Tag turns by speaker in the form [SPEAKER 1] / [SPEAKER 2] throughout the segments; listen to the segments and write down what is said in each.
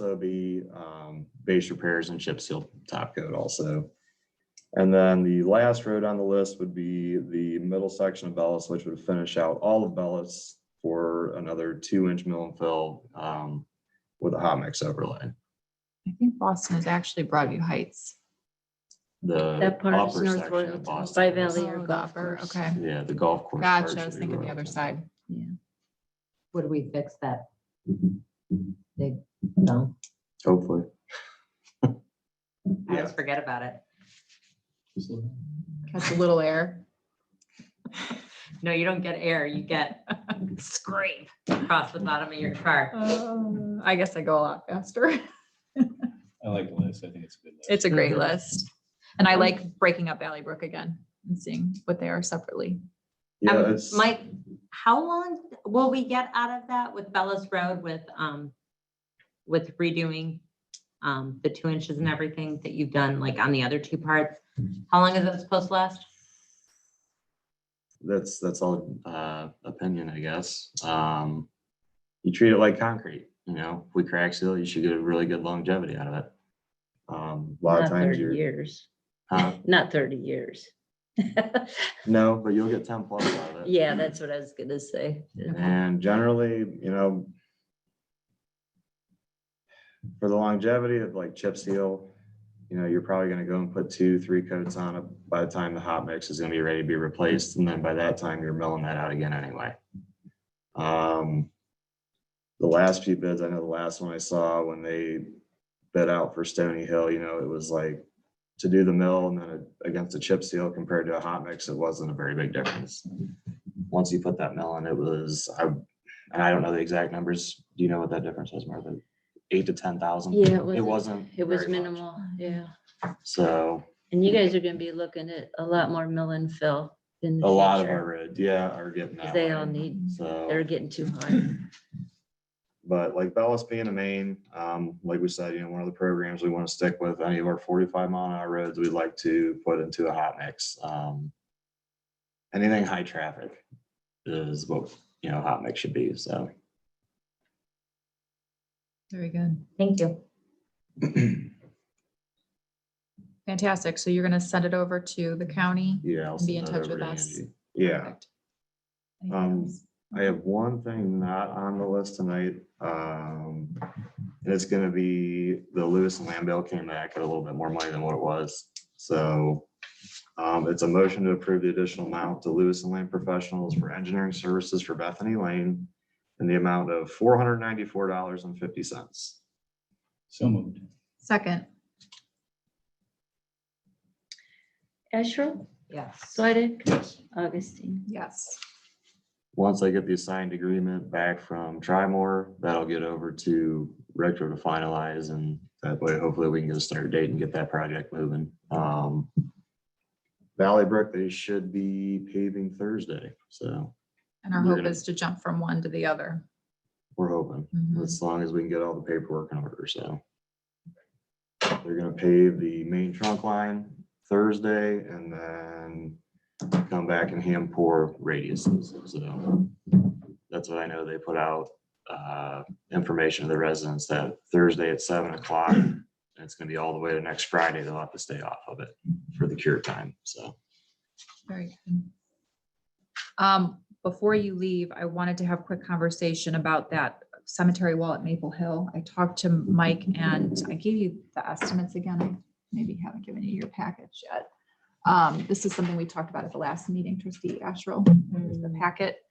[SPEAKER 1] also be um, base repairs and chip seal top coat also. And then the last road on the list would be the middle section of Bellis, which would finish out all of Bellis for another two inch mill and fill um, with a hot mix overlay.
[SPEAKER 2] I think Boston is actually Broadview Heights.
[SPEAKER 1] The
[SPEAKER 3] That part is
[SPEAKER 1] upper section of
[SPEAKER 3] northward by
[SPEAKER 1] Boston.
[SPEAKER 3] Valley or
[SPEAKER 2] Oh, the
[SPEAKER 3] golf
[SPEAKER 2] upper,
[SPEAKER 3] course.
[SPEAKER 2] Okay,
[SPEAKER 1] Yeah, the golf course.
[SPEAKER 2] gotcha,
[SPEAKER 1] part
[SPEAKER 2] I was
[SPEAKER 1] should be
[SPEAKER 2] thinking the
[SPEAKER 1] road.
[SPEAKER 2] other side.
[SPEAKER 4] Would we fix that? Big no,
[SPEAKER 1] Hopefully.
[SPEAKER 4] I
[SPEAKER 1] Yeah,
[SPEAKER 3] Um,
[SPEAKER 4] just forget about it.
[SPEAKER 2] Catch a little air.
[SPEAKER 4] No, you don't get air, you get scrape across the bottom of your car.
[SPEAKER 2] Uh, I guess I go a lot faster.
[SPEAKER 5] I like the list. I think it's a good list.
[SPEAKER 2] It's a
[SPEAKER 1] Mm-hmm.
[SPEAKER 2] great list. And I like breaking up Valley Brook again and seeing what they are separately.
[SPEAKER 1] yeah,
[SPEAKER 4] Um,
[SPEAKER 1] it's-
[SPEAKER 4] Mike, how long will we get out of that with Bellis Road with, um, with redoing, um, the two inches and everything that you've done, like on the other two parts? How long is that supposed to last?
[SPEAKER 1] that's that's all uh opinion, I guess. Um you treat it like concrete, you know, if we crack seal, you should get a really good longevity out of it. Um a lot of
[SPEAKER 3] Not
[SPEAKER 1] times
[SPEAKER 3] 30
[SPEAKER 1] you're
[SPEAKER 3] years,
[SPEAKER 1] huh?
[SPEAKER 3] not 30 years.
[SPEAKER 1] no, but you'll get ten plus out of it.
[SPEAKER 3] Yeah, that's what I was gonna say.
[SPEAKER 1] And generally, you know. For the longevity of like chip seal, you know, you're probably gonna go and put two, three coats on it by the time the hot mix is gonna be ready to be replaced, and then by that time, you're milling that out again anyway. Um. The last few bids, I know the last one I saw when they bid out for Stony Hill, you know, it was like. To do the mill and then against a chip seal compared to a hot mix, it wasn't a very big difference once you put that mill in, it was, I, and I don't know the exact numbers. Do you know what that difference was, Martha? Eight to ten thousand?
[SPEAKER 3] Yeah,
[SPEAKER 1] It
[SPEAKER 3] it wasn't,
[SPEAKER 1] wasn't.
[SPEAKER 3] it was
[SPEAKER 1] very much.
[SPEAKER 3] minimal, yeah.
[SPEAKER 1] So
[SPEAKER 3] And you guys are gonna be looking at a lot more mill and fill in the
[SPEAKER 1] a lot of our
[SPEAKER 3] future,
[SPEAKER 1] roads, yeah, are getting
[SPEAKER 3] 'cause
[SPEAKER 1] that
[SPEAKER 3] They all
[SPEAKER 1] way.
[SPEAKER 3] need, they're
[SPEAKER 1] So,
[SPEAKER 3] getting too high.
[SPEAKER 1] but like Bellis being a main, um, like we said, you know, one of the programs we want to stick with, any of our forty-five mile an hour roads, we'd like to put into a hot mix. Um, Anything high traffic is what, you know, hot mix should be, so.
[SPEAKER 2] Very good.
[SPEAKER 4] Thank you.
[SPEAKER 2] Fantastic. So you're gonna send it over to the county?
[SPEAKER 1] Yeah. I'll
[SPEAKER 2] And be
[SPEAKER 1] send
[SPEAKER 2] in
[SPEAKER 1] that
[SPEAKER 2] touch
[SPEAKER 1] over
[SPEAKER 2] with
[SPEAKER 1] to
[SPEAKER 2] us.
[SPEAKER 1] Angie. Yeah.
[SPEAKER 2] Perfect. Anything
[SPEAKER 1] Um,
[SPEAKER 2] else?
[SPEAKER 1] I have one thing not on the list tonight. Um, and it's gonna be the Lewis and Lambell came back at a little bit more money than what it was. So, um, it's a motion to approve the additional amount to Lewis and Lamb Professionals for engineering services for Bethany Lane in the amount of four hundred ninety-four dollars and fifty cents.
[SPEAKER 5] So moved.
[SPEAKER 2] Second,
[SPEAKER 3] Asher,
[SPEAKER 4] Yes.
[SPEAKER 3] Swedick,
[SPEAKER 5] Yes.
[SPEAKER 3] Augustine.
[SPEAKER 2] yes.
[SPEAKER 1] Once I get the signed agreement back from Trimore, that'll get over to Retro to finalize and that way hopefully we can get a start date and get that project moving. Um, Valley Brook, they should be paving Thursday, so
[SPEAKER 2] And our
[SPEAKER 1] We're
[SPEAKER 2] hope
[SPEAKER 1] gonna-
[SPEAKER 2] is to jump from one to the other.
[SPEAKER 1] we're hoping,
[SPEAKER 2] Mhm.
[SPEAKER 1] as long as we can get all the paperwork in order, so. They're gonna pave the main trunk line Thursday and then come back and hand pour radiuses, so. That's what I know, they put out, uh, information to the residents that Thursday at seven o'clock. and It's gonna be all the way to next Friday, they'll have to stay off of it for the cure time, so.
[SPEAKER 2] Very good. Um, before you leave, I wanted to have a quick conversation about that cemetery wall at Maple Hill. I talked to Mike and I gave you the estimates again. I Maybe haven't given you your package yet. Um, this is something we talked about at the last meeting, trustee Asherle, There's the packet.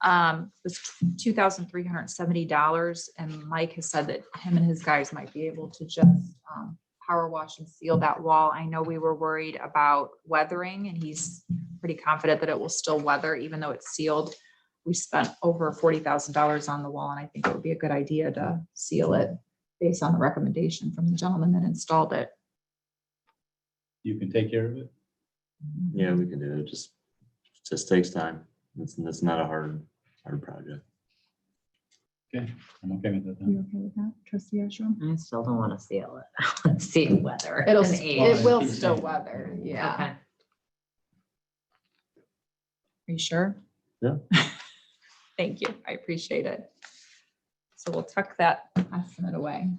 [SPEAKER 2] Um, was two thousand three hundred and seventy dollars and Mike has said that him and his guys might be able to just, um, power wash and seal that wall. I know we were worried about weathering and he's pretty confident that it will still weather even though it's sealed. We spent over forty thousand dollars on the wall and I think it would be a good idea to seal it based on the recommendation from the gentleman that installed it.
[SPEAKER 5] You can take care of it.
[SPEAKER 1] Yeah, we can do it. Just, just takes time. It's, it's not a hard, hard project.
[SPEAKER 5] Okay, I'm okay with that.
[SPEAKER 2] You
[SPEAKER 5] then.
[SPEAKER 2] okay with that, trustee Ashram?
[SPEAKER 4] Mm-hmm. I still don't want to seal it. Let's see whether.
[SPEAKER 2] It'll,
[SPEAKER 4] an
[SPEAKER 2] s-
[SPEAKER 4] age.
[SPEAKER 2] it will still weather, yeah.
[SPEAKER 4] Okay.
[SPEAKER 2] Are you sure?
[SPEAKER 1] Yeah.
[SPEAKER 2] Thank you. I appreciate it. So so we'll tuck that estimate away.